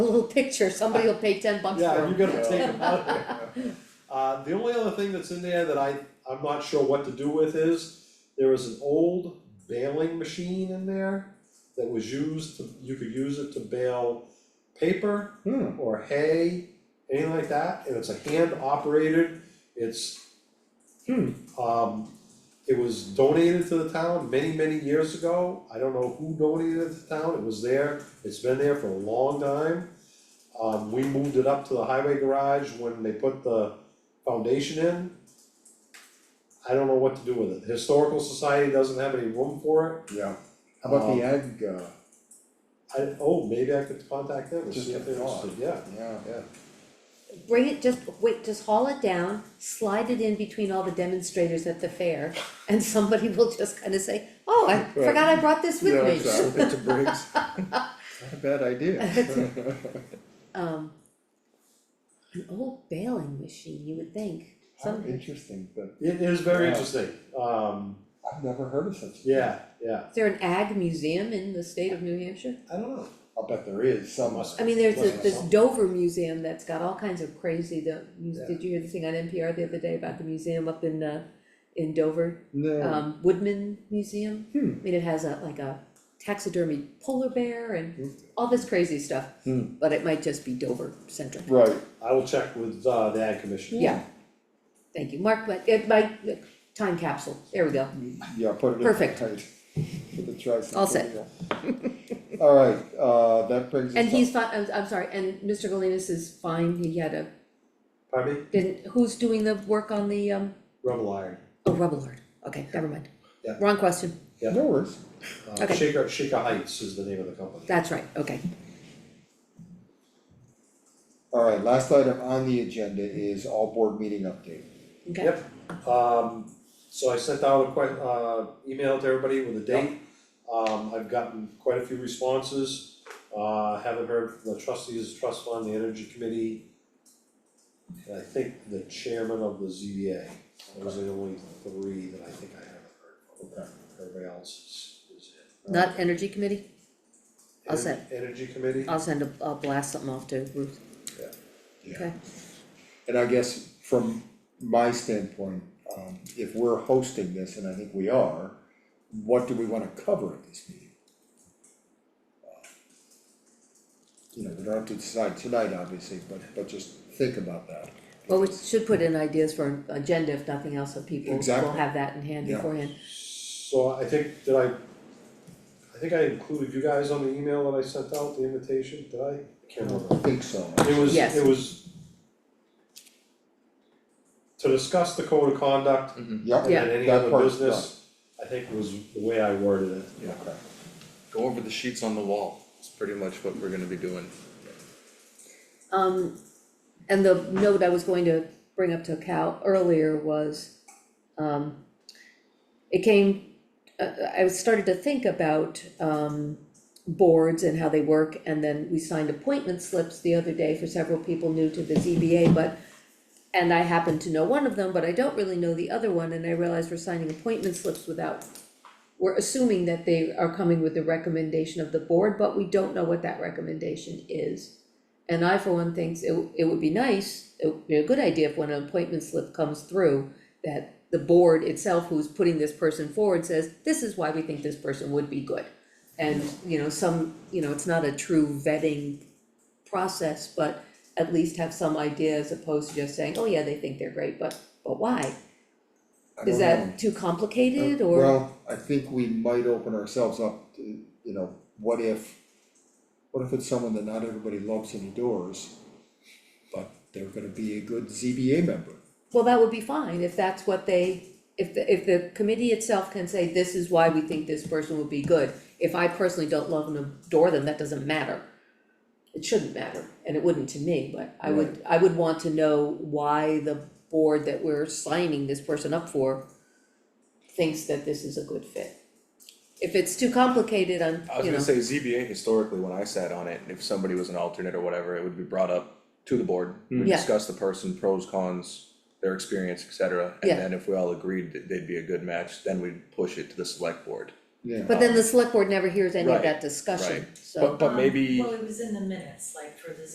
cool picture, somebody will pay ten bucks Yeah, for you it. gotta take them out of there. Uh, the only other thing that's in there that I, I'm not sure what to do with is, there was an old baling machine in there that was used, to- you could use it to bale paper Hmm. or hay, anything like that, and it's a hand operated, it's Hmm. um, it was donated to the town many, many years ago, I don't know who donated it to the town, it was there, it's been there for a long time. Um, we moved it up to the highway garage when they put the foundation in. I don't know what to do with it, historical society doesn't have any room for it, Yeah. How about the egg, uh, I, oh, maybe I could contact them and Just see if they're a thought. interested, yeah, yeah, yeah. Bring it, just, wait, just haul it down, slide it in between all the demonstrators at the fair, and somebody will just kinda say, oh, I forgot I brought this with me. yeah, exactly, it's a Briggs. Not a bad idea. Um, an old baling machine, you would think, How some, is interesting, but It is very Yeah. interesting, um, I've never heard of such. a thing. yeah, yeah, there an ag museum in the state of New Hampshire? I don't know. I'll bet there is some. Must I mean, there's a- Wasn't this something? Dover museum that's got all kinds of crazy, the, muse- Yeah. did you hear the thing on NPR the other day about the museum up in, uh, in Dover? Oh. No, um, Woodman Museum. Hmm. I mean, it has a, like a taxidermy polar bear and Hmm. all this crazy stuff. Hmm. But it might just be Dover centric. right, I will check with uh the ad commission. Yeah. Thank you, Mark, but it might, time capsule, there we go. yeah, put it in. Perfect. right, For the tricentennial. All set. Alright, uh, that brings us. And up- he's fine, I'm, I'm sorry, and Mr. Galinas is fine, he had a, Pardon me, didn't, who's doing the work on the, um, Rebel Iron, oh, rubble art, okay, never mind. Yeah. Wrong question, No worries, uh Okay. Shaker Shaker Heights is the name of the company. that's right, okay. alright, last item on the agenda is all board meeting update. Okay. Yep. Um, so I sent out a que- uh, email to everybody with a date. Um, I've gotten quite a few responses, uh, haven't heard from the trustees, trust fund, the energy committee. And I think the chairman of the ZBA, those are the only three that I think I haven't heard from. Everybody else is, is in. Not energy committee, I'll send. Energy committee, I'll send a, I'll blast something off to Ruth, okay, And I guess from my standpoint, um, if we're hosting this, and I think we are, what do we wanna cover at this meeting? Uh, You know, we don't have to decide tonight, obviously, but, but just think about that. well, we should put in ideas for an agenda if nothing else, so people will Exactly. have that in hand Yeah. beforehand. So I think, did I, I think I included you guys on the email that I sent out, the invitation, did I? I Can't I remember. think so. It was, Yes. it was to discuss the code of conduct Mm-hmm. Yep, and then any that other part's business, I think was the way I worded it. done. Okay. Go over the sheets on the wall, it's pretty much what we're gonna be doing. Um, and the note I was going to bring up to Cal earlier was, um, it came, uh, I started to think about, um, boards and how they work, and then we signed appointment slips the other day for several people new to the ZBA, but and I happen to know one of them, but I don't really know the other one, and I realize we're signing appointment slips without we're assuming that they are coming with the recommendation of the board, but we don't know what that recommendation is. And I, for one, thinks it, it would be nice, it would be a good idea if when an appointment slip comes through, that the board itself who's putting this person forward says, this is why we think this person would be good. And, you know, some, you know, it's not a true vetting process, but at least have some idea as opposed to just saying, oh yeah, they think they're great, but, but why? I Is don't know. Uh, that too complicated or? Well, I think we might open ourselves up to, you know, what if, what if it's someone that not everybody loves and adores, but they're gonna be a good ZBA member? Well, that would be fine if that's what they, if the, if the committee itself can say, this is why we think this person would be good. If I personally don't love and adore them, that doesn't matter. It shouldn't matter, and it wouldn't to me, but I would, I would want to know why the board that we're signing this person up for thinks that this is a good fit. If it's too complicated, I'm, I was you know, gonna say ZBA historically, when I sat on it, if somebody was an alternate or whatever, it would be brought up to the board. We Yeah. discuss the person, pros, cons, their experience, et cetera, Yeah. and then if we all agreed that they'd be a good match, then we'd push it to the select board. Yeah. but then the select board never hears any of uh, Right, that discussion, right. so. But but Um, maybe. Well, it was in the minutes, like for the